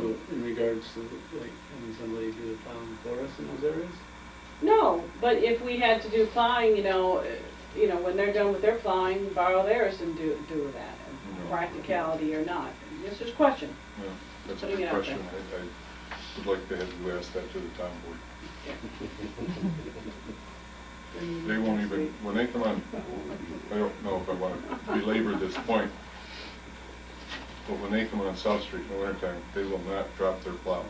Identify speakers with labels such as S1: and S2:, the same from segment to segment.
S1: in regards to, like, having somebody do the plowing for us in those areas?
S2: No, but if we had to do plowing, you know, eh, you know, when they're done with their plowing, borrow theirs and do, do that, practicality or not. It's just a question.
S3: Yeah, That's a
S2: Putting
S3: good
S2: it out
S3: question. I, I would like to have you ask that to the town board.
S2: Mm-hmm.
S3: They won't even, when they come on, I don't know if I want to belabor this point, but when they come on South Street in the wintertime, they will not drop their plow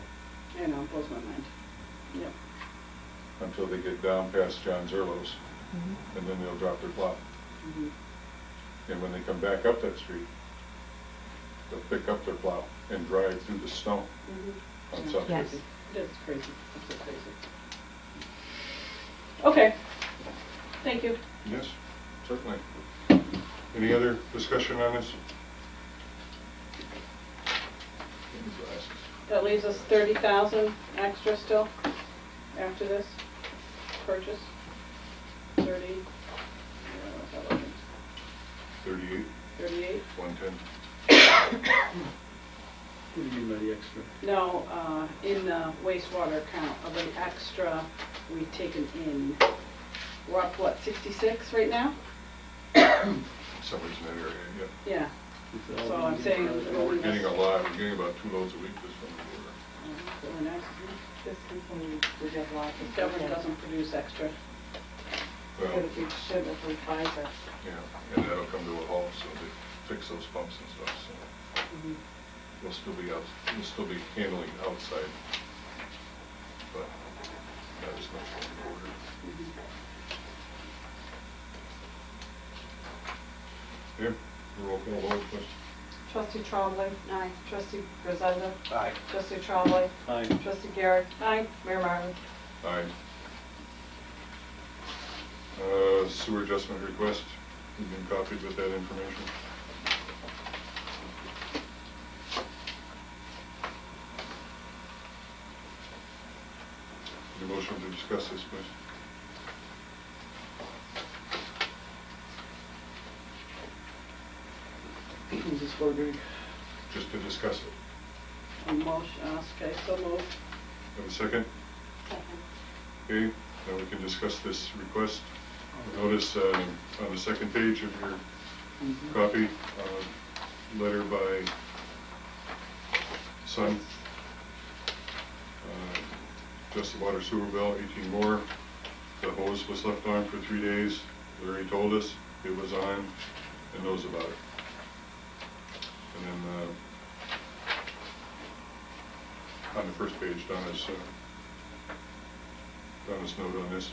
S2: I know, blows my mind. Yep.
S3: until they get down past John Zerlo's,
S2: Mm-hmm.
S3: and then they'll drop their plow.
S2: Mhm.
S3: And when they come back up that street, they'll pick up their plow and drive through the snow
S2: Mhm.
S3: on South Street.
S4: Yes.
S2: That's crazy, that's so crazy. Okay, thank you.
S3: Yes, certainly. Any other discussion on this?
S2: That leaves us thirty thousand extra still after this purchase. Thirty, uh, what was it?
S3: Thirty-eight,
S2: thirty-eight?
S3: one-ten.
S1: What do you mean by the extra?
S2: No, uh, in the wastewater account of the extra we've taken in. We're up, what, sixty-six right now?
S3: Somebody's in that area, yeah.
S2: Yeah.
S1: It's all
S2: So I'm
S1: being
S2: saying-
S1: approved.
S3: We're getting a lot, we're getting about two loads a week this summer.
S2: Uh, so we're not-
S5: This continues, we have lots
S2: The
S5: of.
S2: government doesn't produce extra.
S3: Well,
S5: But we should if we buy it.
S3: Um, yeah, and that'll come to a halt, so they fix those pumps and stuff, so
S5: Mm-hmm.
S2: Mhm.
S3: we'll still be out, we'll still be handling outside. But that is not in order. Here, roll call vote, please.
S5: Trustee Trombley. Aye. Trustee Grisenda.
S6: Aye.
S5: Trustee Trombley.
S1: Aye.
S5: Trustee Garrett.
S2: Aye.
S5: Mayor Martin.
S3: Aye. Uh, Sewer adjustment request, you've been copied with that information. Your motion to discuss this, please.
S1: Who's this for, Greg?
S3: Just to discuss it.
S2: A motion, uh, okay, so moved.
S3: Have a second? Okay, now we can discuss this request. Notice uh, on the second page of your
S1: Mhm.
S3: copy, uh, letter by Sun. Uh, Just the water sewer bill, 18 more. The hose was left on for three days. Larry told us it was on and knows about it. And then uh, on the first page, Donna's, uh, Donna's note on this.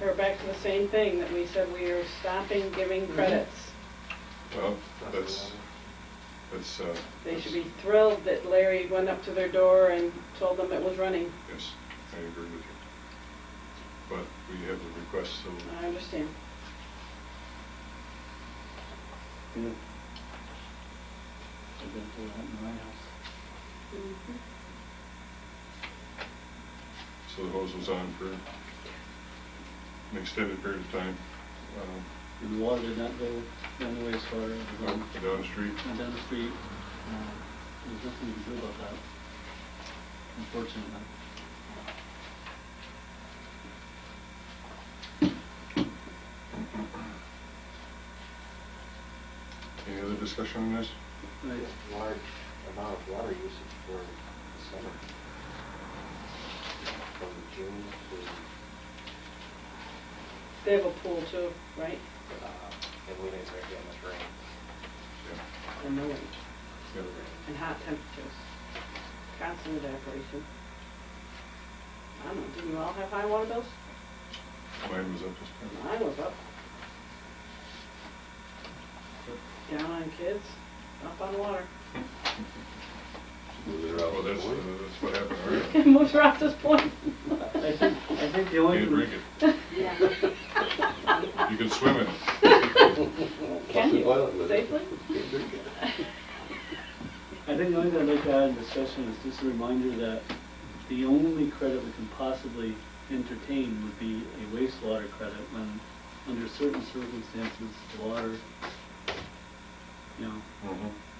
S2: We're back to the same thing that we said we are stopping giving credits.
S3: Well, that's, that's. uh,
S2: They should
S3: that's-
S2: be thrilled that Larry went up to their door and told them it was running.
S3: Yes, I agree with you. But we have the request, so
S2: I understand.
S1: Yeah. I've been through that in my house.
S2: Mm-hmm.
S3: so the hose was on for an extended period of time. um,
S1: And the water did not go down the wastewater, it was
S3: Up
S1: on-
S3: and down the street,
S1: went down the street. Uh, There's nothing you can do about that, unfortunately.
S3: any other discussion on this?
S1: Right.
S6: Large amount of water usage for the summer. From June
S2: They have a pool too, right?
S6: to, uh, and we didn't very much rain.
S3: Yeah.
S2: And no wind,
S3: Yeah.
S2: and hot temperatures, constant evaporation. I don't know, didn't you all have high water bills?
S3: Mine was up this time.
S2: Mine was up. Down on kids, up on water.
S3: Well, that's, uh, that's what happened. all right.
S2: Moved around this point.
S1: I think, I think the only.
S3: You can drink it. You can swim in it.
S2: Can
S6: Flush the toilet
S2: you
S6: with it.
S2: safely?
S1: I think the only thing I'd like to add in discussion is just a reminder that the only credit we can possibly entertain would be a wastewater credit when, under certain circumstances, water, you know,
S3: Mhm.